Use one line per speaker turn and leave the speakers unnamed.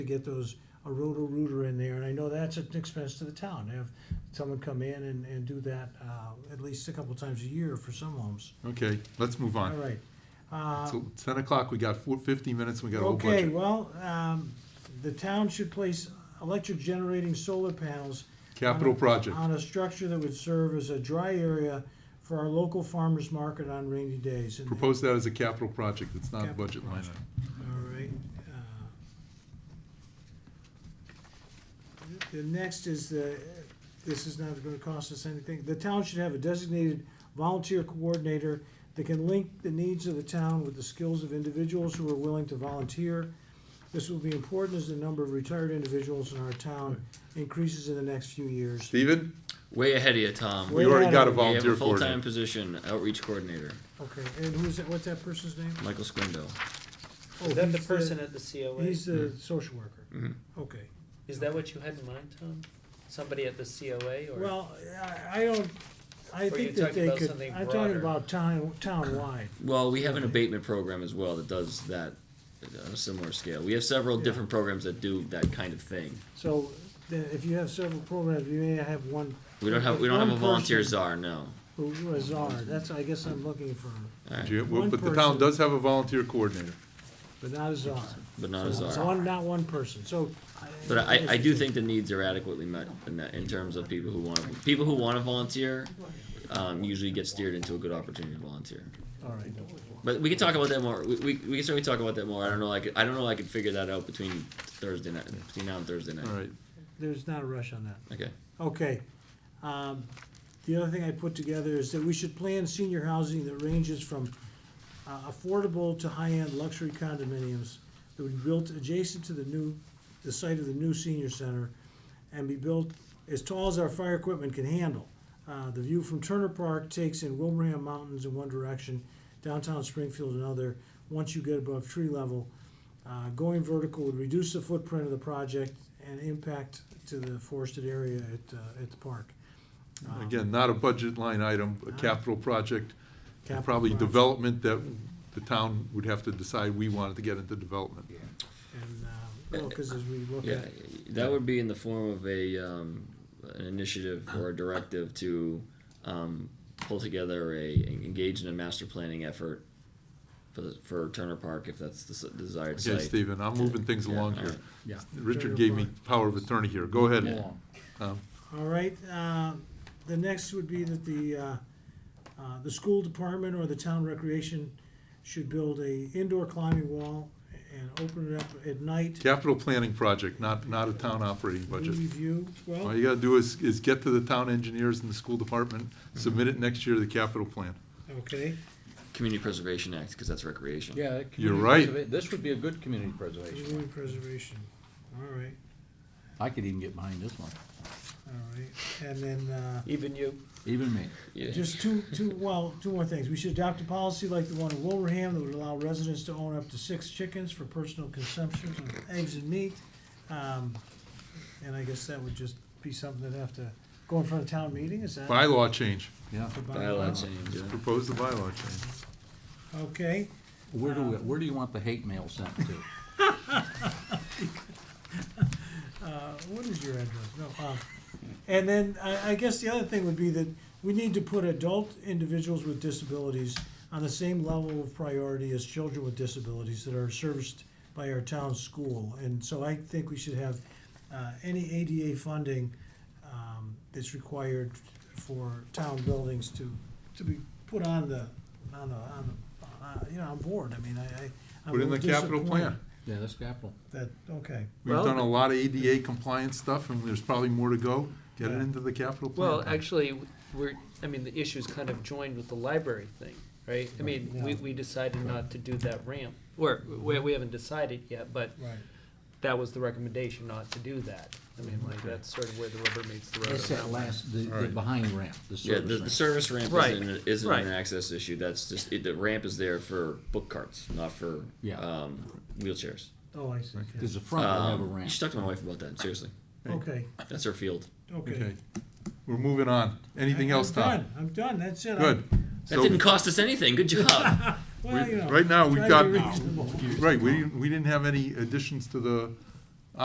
to get those, a roto-rooter in there, and I know that's an expense to the town, have someone come in and, and do that, uh, at least a couple times a year for some homes.
Okay, let's move
All
on.
right. Uh,
So ten o'clock, we got four, fifty minutes, we got a whole
Okay,
budget.
well, um, the town should place electric generating solar panels.
Capital
on a-
project.
On a structure that would serve as a dry area for our local farmers market on rainy days. And-
Propose that as a capital project, it's not a
Capital
budget line item.
All right. uh, uh, The the next is the, this is not gonna cost us anything. The town should have a designated volunteer coordinator that can link the needs of the town with the skills of individuals who are willing to volunteer. This will be important as the number of retired individuals in our town increases in the next few years.
Steven,
Way ahead of you, Tom.
Way
we already
ahead
got a
of-
We have
volunteer
a full-time
coordinator.
position, outreach coordinator,
Okay, and who's that, what's that person's name?
Michael Squindo.
Oh,
Is that the
he's
person at the COA?
He's the social worker.
Mhm.
Mm-hmm.
Okay.
Is that what you had in mind, Tom? Somebody at the COA or?
Well, I, I don't, I
Or
think
you're
that
talking
they
about
could,
something
I'm talking
broader.
about town, town-wide.
Well, we have an abatement program as well that does that on a similar scale. We have several
Yeah.
different programs that do that kind of thing.
So, then if you have several programs, you may have one
We don't have we don't
One
have a volunteer
person.
czar, no.
who who is czar, that's, I guess I'm looking for,
All right,
Yeah, well,
One
But the
person.
town does have a volunteer coordinator.
but not a czar.
but not a
So,
czar.
so one- not one person, so.
But I, I do think the needs are adequately met in that, in terms of people who want to, people who want to volunteer, um, usually get steered into a good opportunity to volunteer.
All right,
But we can talk about that more. We, we, we can certainly talk about that more. I don't know. I could, I don't know. I could figure that out between Thursday night, between now and Thursday night.
All right,
there's not a rush on that.
Okay.
Okay. Um, The other thing I put together is that we should plan senior housing that ranges from uh, affordable to high-end luxury condominiums that would be built adjacent to the new, the site of the new senior center and be built as tall as our fire equipment can handle. Uh, The view from Turner Park takes in Wilbraham Mountains in one direction, downtown Springfield another, once you get above tree level. Uh, Going vertical would reduce the footprint of the project and impact to the forested area at, uh, at the park. Um,
again, not a budget line item, a capital project, and
Capital
probably
project.
development that the town would have to decide we wanted to get into development.
And, uh, well, because as we look
Yeah,
at,
that would be in the form of a um, an initiative or a directive to um, pull together a engage in a master planning effort for the, for Turner Park if that's the s- desired
Okay,
site.
Steven, I'm moving things
Yeah,
along
all
here.
right.
Yeah.
Richard gave me power of attorney here. Go ahead.
Yeah.
Tom.
all right, uh, the next would be that the, uh, uh, the school department or the town recreation should build a indoor climbing wall and open it up at night.
Capital planning project, not, not a town operating budget.
Review,
All
well,
you gotta do is, is get to the town engineers and the school department, submit it next year to the capital plan.
okay,
Community Preservation Act because that's recreation.
Yeah.
You're
community
right.
preserva- This would be a good community preservation.
community preservation, all right,
I could even get behind this one,
all right. And then, uh,
Even you?
even me.
Yeah.
Just two, two, well, two more things. We should adopt a policy like the one in Wilbraham that would allow residents to own up to six chickens for personal consumption of eggs and meat. Um, And I guess that would just be something that'd have to go in front of town meeting, is that?
Bylaw change,
Yeah.
the bylaw?
Bylaw change. yeah.
propose the bylaw change.
Okay,
Where do, we- where do you want the hate mail sent to?
uh, what is your address? No, uh, and then I, I guess the other thing would be that we need to put adult individuals with disabilities on the same level of priority as children with disabilities that are serviced by our town school. And so I think we should have uh, any ADA funding um, that's required for town buildings to, to be put on the, on the, on the, uh, you know, on board. I mean, I, I. I'm
Put
a
in the
little
capital plan.
disappointed
Yeah, that's capital.
That, okay.
We've
Well,
done a lot of ADA compliance stuff, and there's probably more to go. Get it into the capital plan.
Well, actually, we're, I mean, the issue's kind of joined with the library thing, right? I mean, we,
Yeah.
we decided not to do that ramp, or, we, we haven't decided yet, but
Right.
that was the recommendation not to do that. I mean, like, that's sort of where the rubber meets the road.
That's
on
that
one.
last, the, the
Alright.
behind ramp, the
Yeah, the, the
service
service
ramp.
ramp
Right,
isn't, isn't
right.
an access issue. That's just it, the ramp is there for book carts, not for
Yeah.
um, wheelchairs.
Oh, I see. yeah.
Because the front will have a
Um, you
ramp.
should talk to my wife about that. Seriously,
Okay,
that's her field.
okay.
Okay, we're moving on. Anything else, Tom?
I'm done, I'm done, that's it.
Good.
That
So,
didn't cost us anything. Good job.
Well, you know.
right now, we've
uh, try to be
got,
reasonable.
right, we, didn't- we didn't have any additions to the